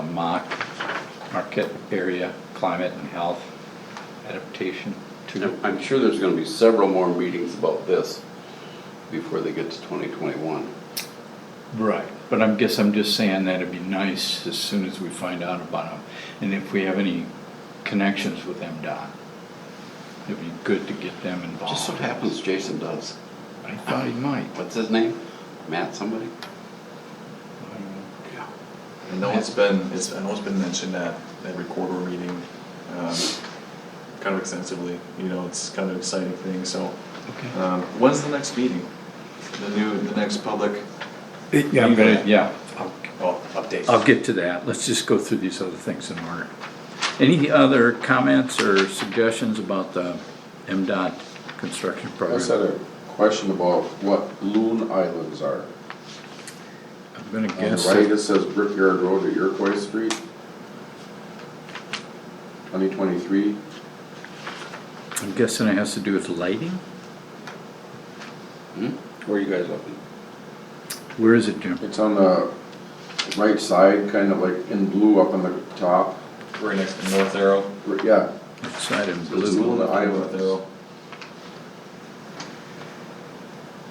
Connecticut uh, area climate and health adaptation to. I'm- I'm sure there's gonna be several more meetings about this before they get to twenty twenty-one. Right. But I guess I'm just saying that it'd be nice as soon as we find out about them. And if we have any connections with MDOT, it'd be good to get them involved. Just so happens Jason does. I thought he might. What's his name? Matt somebody? Yeah. I know it's been, it's, I know it's been mentioned at every quarter meeting, um, kind of extensively, you know, it's kind of an exciting thing, so. Okay. Um, when's the next meeting? The new, the next public, Yeah, I'm gonna, yeah, I'll oh, update? I'll get to that. Let's just go through these other things in order. Any other comments or suggestions about the MDOT construction I just had program? a question about what Loon Islands are. I'm gonna On the guess, right, it says Brickyard Road to Iroquois Street. Twenty twenty-three, I'm guessing it has to do with lighting? Hmm? Where are you guys looking? Where is it, Jim? it's on the right side, kind of like in blue up on the top. Right next to North Arrow. R- Yeah, Outside in it's blue. Loon North Islands. Arrow.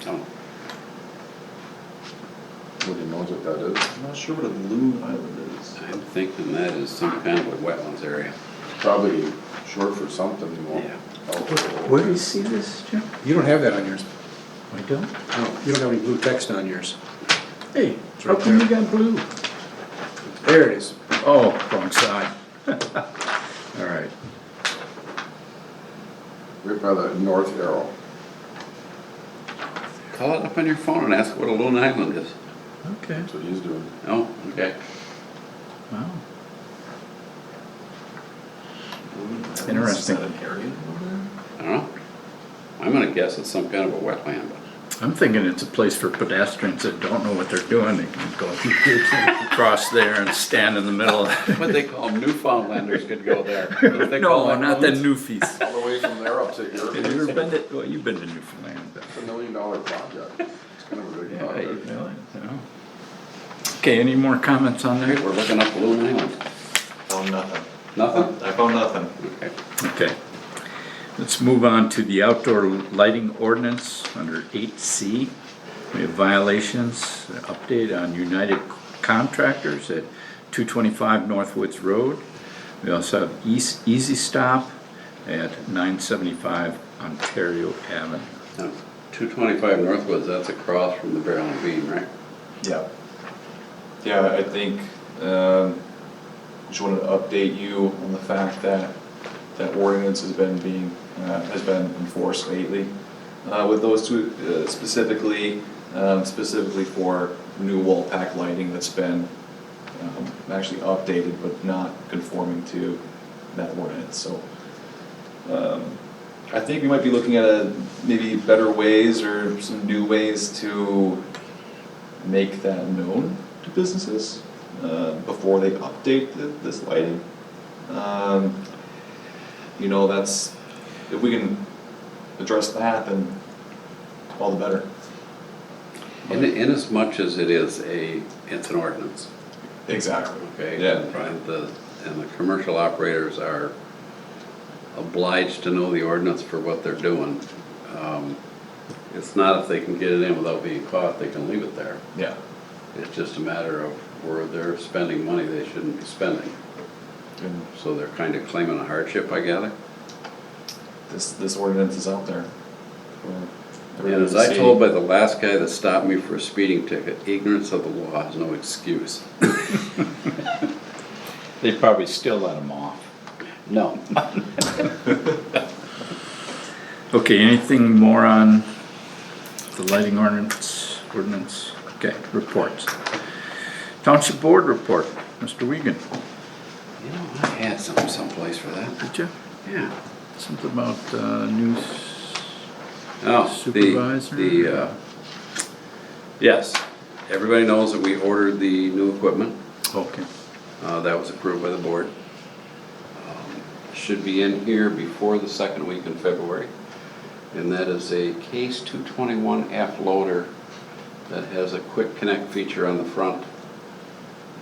Oh, Nobody knows what that is. I'm not sure what a loon island is. I'm thinking that is some kind of a wetlands area. Probably short for something, you won't. Yeah. Where do you see this, Jim? You don't have that on yours. I don't? No, you don't have any blue text on yours. Hey, It's how right come you got blue? There it is. Oh, wrong side. All right. Right by the North Arrow. Call it up on your phone and ask what a lone island is. Okay, That's what he's doing. Oh, okay. wow. Loon Island, is Interesting. that an area over there? I don't know. I'm gonna guess it's some kind of a wetland. I'm thinking it's a place for pedestrians that don't know what they're doing. They can go across there and stand in the middle. What they call Newfoundlanders could go there. What they call No, that not the loons? Newfies. All the way from there up to Have you Iroquois. ever been to, well, you've been to Newfoundland. but- It's a million dollar project. It's kind of a big project. No. Okay, any more comments on All right, that? we're looking up Loon Island. Found nothing. Nothing? I found nothing. Okay. Okay. Let's move on to the outdoor lighting ordinance under eight C. We have violations, an update on United Contractors at two twenty-five Northwoods Road. We also have East, Easy Stop at nine seventy-five Ontario Avenue. Now, 225 Northwoods, that's across from the Barrel and Bean, right? Yeah. Yeah, I think, um, just wanted to update you on the fact that that ordinance has been being, uh, has been enforced lately. Uh, with those two uh, specifically, um, specifically for new wall pack lighting that's been, um, actually updated but not conforming to that ordinance, so. Um, I think we might be looking at a, maybe better ways or some new ways to make that known to businesses uh, before they update th- this lighting. Um, You know, that's, if we can address that, then all the better. In, in as much as it is a, it's an ordinance, Exactly. okay? Yeah. And the, and the commercial operators are obliged to know the ordinance for what they're doing. Um, It's not if they can get it in without being caught, they can leave it there. Yeah, It's just a matter of where they're spending money they shouldn't be spending. and So they're kind of claiming a hardship, I gather. this, this ordinance is out there. for And everyone as to I see. told by the last guy that stopped me for a speeding ticket, ignorance of the law has no excuse. They probably still let them off. No. Okay, anything more on the lighting ordinance, ordinance? Okay, reports. Township Board report, Mr. Wiegand, You know, I had something someplace for that. did you? Yeah. Something about uh, news, Oh, the, Supervisor? the, uh, yes, everybody knows that we ordered the new equipment. okay, Uh, that was approved by the board. Um, Should be in here before the second week in February. And that is a Case 221F loader that has a quick connect feature on the front.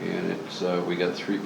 And it's, uh, we got three